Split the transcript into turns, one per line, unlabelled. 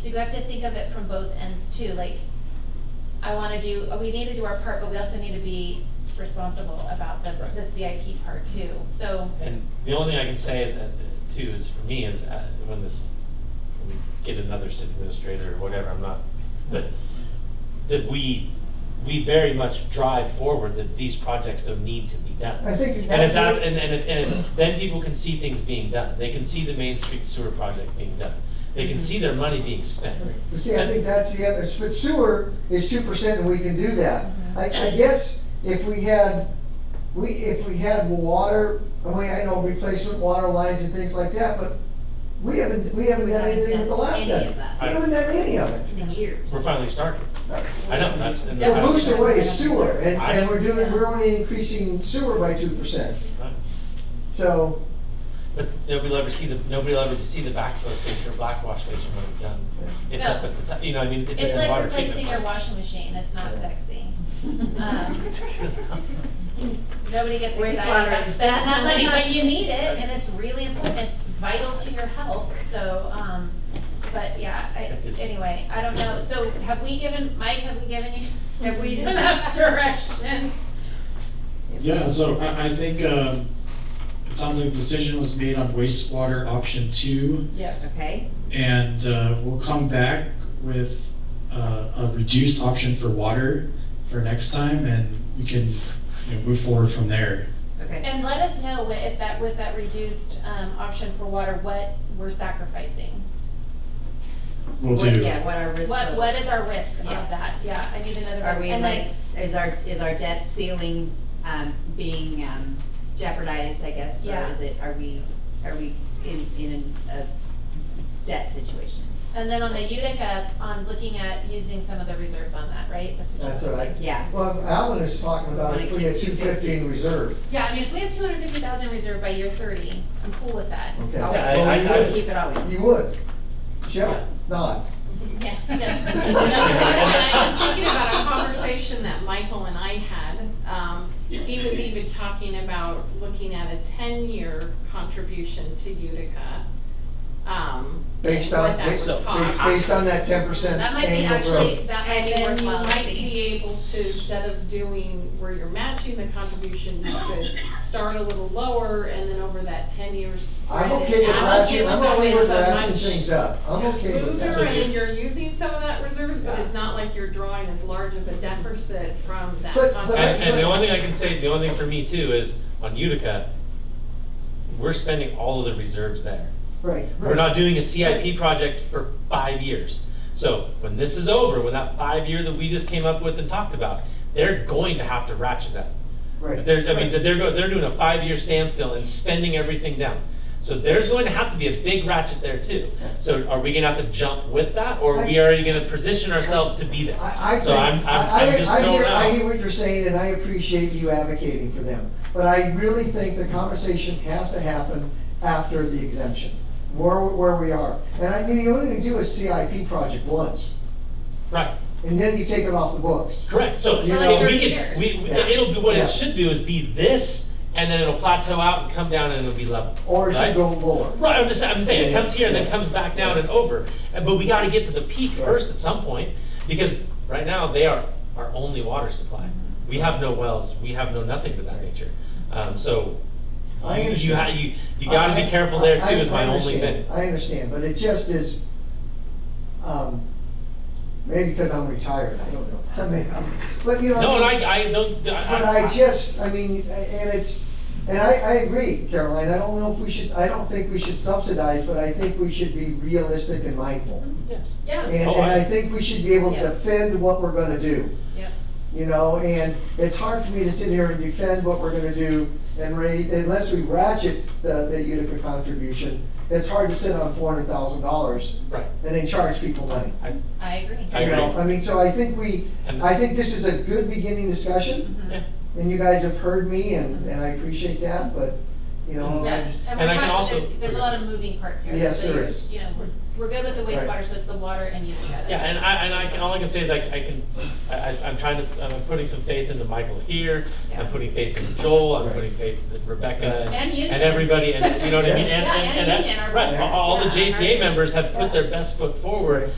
so you have to think of it from both ends too, like, I wanna do, uh, we need to do our part, but we also need to be responsible about the,
Right.
the CIP part too, so.
And the only thing I can say is that, uh, too, is for me, is uh, when this, when we get another city administrator or whatever, I'm not, but that we, we very much drive forward that these projects don't need to be done.
I think
And if that's,
that's-
and, and, if- and if- then people can see things being done. They can see the Main Street sewer project being done. They can see their money being spent.
You see, I think that's the other, but sewer is two percent and we can do that.
Mm-hmm.
I, I guess if we had, we, if we had water, I mean, I know replacement water lines and things like that, but we haven't, we haven't done anything with the last
Any of
set.
that
We haven't done any of it.
in years.
We're finally starting. I know, that's. and
We're
that's-
losing away is sewer and,
I-
and we're doing, we're only increasing sewer by two percent. So,
But nobody'll ever see the, nobody'll ever see the backflow station or blackwash station when it's done. It's up at the top, you know, I mean, it's
It's
at the
like
water treatment
replacing your
plant.
washing machine, it's not
Yeah.
sexy. Um, Nobody gets excited
Wastewater
about
is
spending that money,
definitely
but
not-
you need it, and it's really important, it's vital to your health, so, um, but yeah, I,
That is-
anyway, I don't know, so have we given, Mike, have we given you?
Have we-
Enough direction?
Yeah, so I, I think, um, it sounds like a decision was made on wastewater option two,
Yes.
Okay,
and, uh, we'll come back with, uh, a reduced option for water for next time, and we can, you know, move forward from there.
okay.
And let us know what, if that, with that reduced, um, option for water, what we're sacrificing.
We'll
What-
do.
Yeah, what our risk.
What,
was.
what is our risk of
Yeah.
that? Yeah, I need another risk.
Are we
And
like,
then-
is our, is our debt ceiling, um, being um, jeopardized, I guess?
Yeah.
Or is it, are we, are we in, in a debt situation?
And then on the Utica, on looking at using some of the reserves on that, right? what
That's
you're
all right.
Yeah,
well, Alan is talking about if we had two fifty in reserve,
Yeah, I mean, if we have two hundred fifty thousand reserved by year thirty, I'm cool with that.
okay?
Yeah,
I-
Well,
I-
we
I
would.
was-
keep it always.
You would. Shall not.
Yes, yes.
No, and I was thinking about a conversation that Michael and I had. Um, He was even talking about looking at a ten-year contribution to Utica. um,
Based
and
on,
what that
based,
would cost.
based on that ten percent
That might be
annual
actually,
growth.
that might
And
be
then you
worthwhile to
might be
see.
able to, instead of doing where you're matching the contribution, you could start a little lower and then over that ten years.
I'm
spread it
okay with
out.
ratcheting, I'm
So
okay with
it's a
ratcheting
much
things up, I'm okay with
smoother,
that.
and you're using some of that reserves, but it's not like you're drawing as large of a deficit from that
But- but
contract.
I-
And, and the only thing I can say, the only thing for me too is on Utica, we're spending all of the reserves there.
Right,
We're
right.
not doing a CIP project for five years. So when this is over, when that five year that we just came up with and talked about, they're going to have to ratchet that.
right.
They're, I mean, they're, go- they're doing a five-year standstill and spending everything down. So there's going to have to be a big ratchet there too. So are we gonna have to jump with that, or are we already gonna position ourselves to be there?
I, I
So
think,
I'm,
I,
I'm, I'm
I,
just
I
throwing
hear,
it
I hear
out.
what you're saying and I appreciate you advocating for them. But I really think the conversation has to happen after the exemption, where, where we are. And I, you only do a CIP project once,
Right,
and then you take it off the books.
correct, so,
You
I
know-
mean, we
Years.
can, we, we-
Yeah.
it'll be, what
Yeah.
it should do is be this, and then it'll plateau out and come down and it'll be level.
Or it
right?
should go lower.
Right, I'm just, I'm saying, it
Yeah,
comes here, and then
yeah.
comes back down and over, And- but we gotta get to the peak
Right.
first at some point, because right now, they are our only water supply. We have no wells, we have no nothing of that nature, um, so,
I
you, you, ha-
understand.
you, you gotta
I-
be careful there
I-
too, is my
I
only
understand.
thing.
I understand, but it just is, um, maybe because I'm retired, I don't know. I mean, I'm- but you know.
No, and I, I don't,
But
I,
I
I,
just, I mean, and it's, and I, I agree, Caroline, I don't know if we should, I don't think we should subsidize, but I think we should be realistic and mindful.
yes,
And,
Yeah,
and
Oh, I-
I think we should be able to
Yes.
defend what we're gonna do.
Yep.
You know, and it's hard for me to sit here and defend what we're gonna do and raise, unless we ratchet the, the Utica contribution, it's hard to sit on four hundred thousand dollars
right,
and then charge people money.
I agree.
I
You know,
agree.
I mean, so I think we,
And-
I think this is a good beginning discussion.
Mhm.
yeah.
And you guys have heard me and, and I appreciate that, but, you know, Um, I
Yeah,
just,
and
And I
we're
can
talking,
also-
there- there's a lot of moving parts here.
Yes,
So
there
you're-
is.
You know, we're, we're good with the
Right.
wastewater, so it's the water and Utica.
Yeah, and I, and I can, all I can say is I, I can, I, I- I'm trying to, I'm putting some faith into Michael here, I'm
Yeah.
putting faith in Joel, I'm
Right.
putting faith in Rebecca.
And Union.
And everybody, and, you know what I mean,
Yeah.
and,
Yeah,
and,
and
and,
Union, our
right,
members,
all all the
yeah, and our-
JPA members have put their best foot forward